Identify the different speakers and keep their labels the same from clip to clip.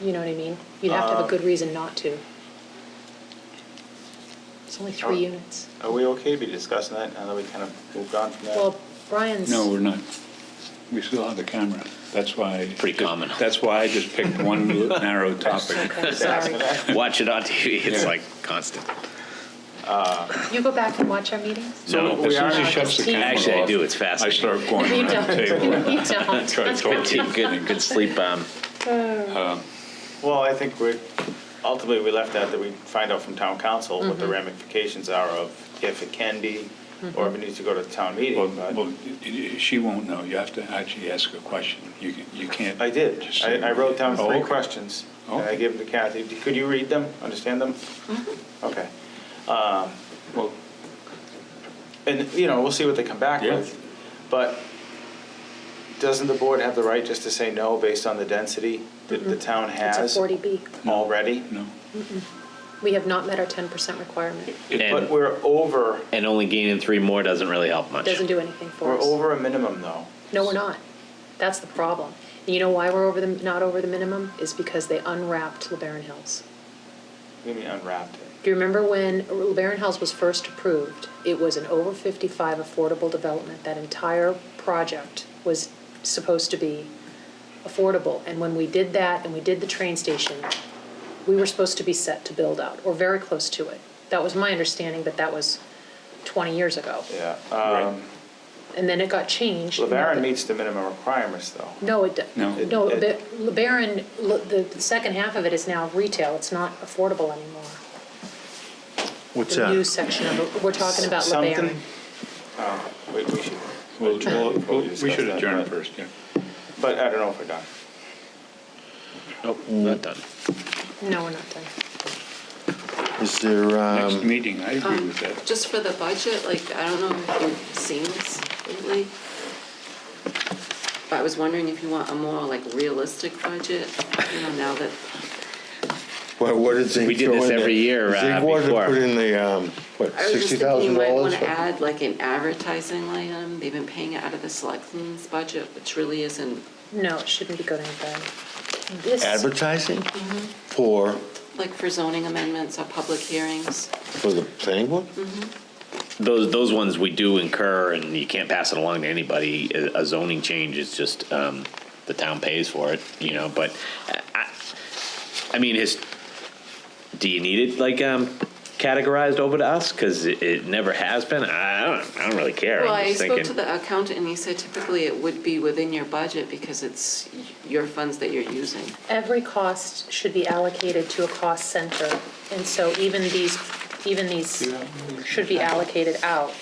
Speaker 1: You know what I mean? You'd have to
Speaker 2: Uh,
Speaker 1: have a good reason not to. It's only three
Speaker 2: Oh.
Speaker 1: units.
Speaker 2: Are we okay to be discussing that now that we kind of moved on from that?
Speaker 1: Well, Brian's.
Speaker 3: No, we're not. We still have the camera. That's why.
Speaker 4: Pretty common.
Speaker 3: That's why I just picked one narrow topic.
Speaker 1: Okay,
Speaker 2: Just asking
Speaker 1: sorry.
Speaker 2: that.
Speaker 4: Watch it on TV, it's
Speaker 3: Yeah.
Speaker 4: like constant.
Speaker 1: You go back and watch our meetings?
Speaker 4: No,
Speaker 3: As soon as
Speaker 1: are-
Speaker 3: she shuts the camera off.
Speaker 4: Actually, I do. It's
Speaker 3: I
Speaker 4: fascinating.
Speaker 3: start going
Speaker 1: You
Speaker 3: around the
Speaker 1: don't.
Speaker 3: table.
Speaker 1: You don't.
Speaker 3: Try to talk to
Speaker 4: Good, good sleep um, bomb.
Speaker 2: Well, I think we're, ultimately, we left out that we find out from town council what
Speaker 1: Mm-hmm.
Speaker 2: the ramifications are of if it can be, or if
Speaker 1: Mm-hmm.
Speaker 2: it needs to go to town
Speaker 3: Well,
Speaker 2: meeting, but
Speaker 3: well, y- y- she won't know. You have to actually ask a question. You can- you can't.
Speaker 2: I did.
Speaker 3: just say-
Speaker 2: I, I wrote down
Speaker 3: Oh,
Speaker 2: three
Speaker 3: okay.
Speaker 2: questions, and I
Speaker 3: Okay.
Speaker 2: gave them to Kathy. Could you read them, understand them?
Speaker 1: Mm-hmm.
Speaker 2: Okay. Um,
Speaker 3: Well,
Speaker 2: And, you know, we'll see what they come back
Speaker 3: Yeah.
Speaker 2: with. But doesn't the board have the right just to say no based on the density that the town
Speaker 1: Mm-hmm. It's a
Speaker 2: has
Speaker 1: 40B.
Speaker 2: already?
Speaker 3: no.
Speaker 1: We have not met our 10% requirement.
Speaker 3: It-
Speaker 2: But we're over,
Speaker 4: And only gaining three more doesn't really help much.
Speaker 1: Doesn't do anything for
Speaker 2: we're
Speaker 1: us.
Speaker 2: over a minimum, though.
Speaker 1: No, we're not. That's the problem. And you know why we're over the, not over the minimum? Is because they unwrapped LeBaron Hills.
Speaker 2: We mean unwrapped it.
Speaker 1: Do you remember when LeBaron House was first approved? It was an over 55 affordable development. That entire project was supposed to be affordable. And when we did that and we did the train station, we were supposed to be set to build out, or very close to it. That was my understanding, but that was 20 years ago.
Speaker 2: Yeah.
Speaker 3: Right.
Speaker 2: Um,
Speaker 1: And then it got changed.
Speaker 2: LeBaron meets the minimum requirements, though.
Speaker 1: No, it, d-
Speaker 3: No.
Speaker 1: no,
Speaker 2: It-
Speaker 1: Le- LeBaron, Le- the the second half of it is now retail. It's not affordable anymore.
Speaker 5: What's
Speaker 1: The new
Speaker 5: that?
Speaker 1: section of, it. we're talking about LeBaron.
Speaker 2: Something. Oh, we we should,
Speaker 3: Well, well, well, we should
Speaker 2: that,
Speaker 3: adjourn
Speaker 2: but-
Speaker 3: first, yeah.
Speaker 2: but I don't know if we're done.
Speaker 4: Nope, not done.
Speaker 1: No, we're not done.
Speaker 5: Is there,
Speaker 3: Next
Speaker 5: um,
Speaker 3: meeting, I agree with that.
Speaker 6: Just for the budget, like, I don't know if you've seen this lately, but I was wondering if you want a more like realistic budget, you know, now that,
Speaker 5: what, what did Zink
Speaker 4: We did
Speaker 5: throw
Speaker 4: this
Speaker 5: in there?
Speaker 4: every year, uh,
Speaker 5: Zink wanted to
Speaker 4: before.
Speaker 5: put in the, um, what,
Speaker 6: I was just
Speaker 5: sixty
Speaker 6: thinking you
Speaker 5: thousand
Speaker 6: might
Speaker 5: dollars?
Speaker 6: want to add like an advertising line item. They've been paying it out of the selectmen's budget, which really isn't,
Speaker 1: No, it shouldn't be going to bed. This,
Speaker 5: Advertising?
Speaker 6: Mm-hmm.
Speaker 5: For,
Speaker 6: like for zoning amendments or public hearings.
Speaker 5: for the planning
Speaker 6: Mm-hmm.
Speaker 5: board?
Speaker 4: Those, those ones we do incur and you can't pass it along to anybody. A a zoning change is just, um, the town pays for it, you know, but uh, I, I mean, his, do you need it like, um, categorized over to us? Cause it, it never has been. I don't, I don't really care.
Speaker 6: Well,
Speaker 4: I'm
Speaker 6: I
Speaker 4: just
Speaker 6: spoke to
Speaker 4: thinking-
Speaker 6: the accountant and he said typically it would be within your budget because it's your funds that you're using.
Speaker 1: every cost should be allocated to a cost center, and so even these, even these should be allocated out.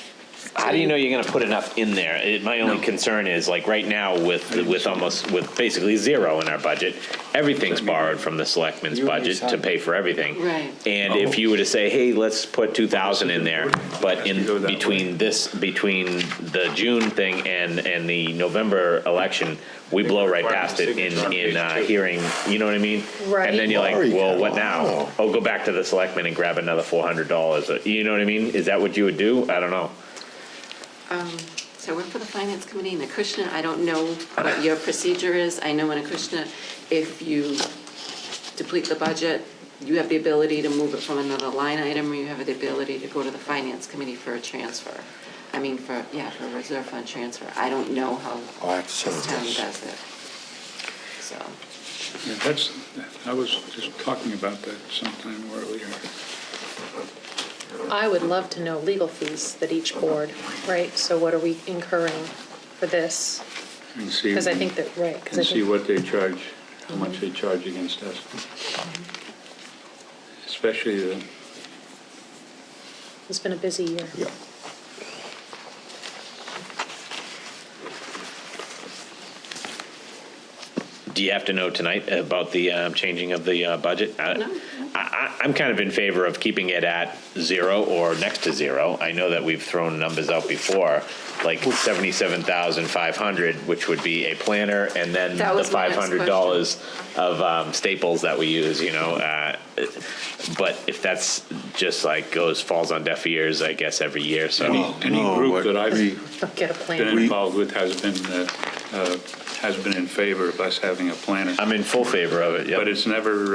Speaker 4: How do you know you're going to put enough in there? It, my only concern is like right now with with almost with basically zero in our budget, everything's borrowed from the selectmen's
Speaker 2: You already
Speaker 4: budget to
Speaker 2: signed.
Speaker 4: pay for everything.
Speaker 6: Right.
Speaker 4: And if you were to say, hey, let's put two thousand in there,
Speaker 3: Has
Speaker 4: but
Speaker 3: to go
Speaker 4: in
Speaker 3: that
Speaker 4: between this between the June thing and and the November election, we blow right past it in in uh, hearing. You know what I mean?
Speaker 1: Right.
Speaker 4: And then you're like,
Speaker 5: Lori,
Speaker 4: well, what
Speaker 5: come
Speaker 4: now?
Speaker 5: on.
Speaker 4: Oh, go back to the selectmen and grab another four hundred dollars. uh, You know what I mean? Is that what you would do? I don't know.
Speaker 6: So I work for the finance committee in Acushnet. I don't know what your procedure is. I know in Acushnet, if you deplete the budget, you have the ability to move it from another line item, or you have the ability to go to the finance committee for a transfer. I mean, for, yeah, for a reserve fund transfer. I don't know how
Speaker 5: Oh, I have to send
Speaker 6: this town
Speaker 5: this.
Speaker 6: does it. So,
Speaker 3: Yeah, That's, I was just talking about that sometime earlier.
Speaker 1: I would love to know legal fees that each board, right, so what are we incurring for this?
Speaker 3: and see-
Speaker 1: Because I think that, right, because I
Speaker 3: And see
Speaker 1: think, Mhm.
Speaker 3: what they charge, how much they charge against us. Especially the,
Speaker 1: it's been a busy year.
Speaker 5: Yeah.
Speaker 4: Do you have to know tonight about the um, changing of the uh, budget? I-
Speaker 6: No.
Speaker 4: I, I, I'm kind of in favor of keeping it at zero or next to zero. I know that we've thrown numbers out before, like seventy-seven thousand five hundred, which would be a planner, and then
Speaker 6: That
Speaker 4: the
Speaker 6: was my
Speaker 4: five
Speaker 6: next
Speaker 4: hundred dollars of um, staples that we use. You know, uh, but if that's just like goes falls on deaf ears, I guess every year. So
Speaker 3: any, any
Speaker 5: Oh, no,
Speaker 3: group
Speaker 5: what
Speaker 3: that I've
Speaker 5: we-
Speaker 1: Don't get a
Speaker 3: been
Speaker 1: plan.
Speaker 3: involved with has been, uh, uh,
Speaker 4: has been in favor of us having a planner,
Speaker 3: I'm in full favor of it, yep.
Speaker 4: but it's never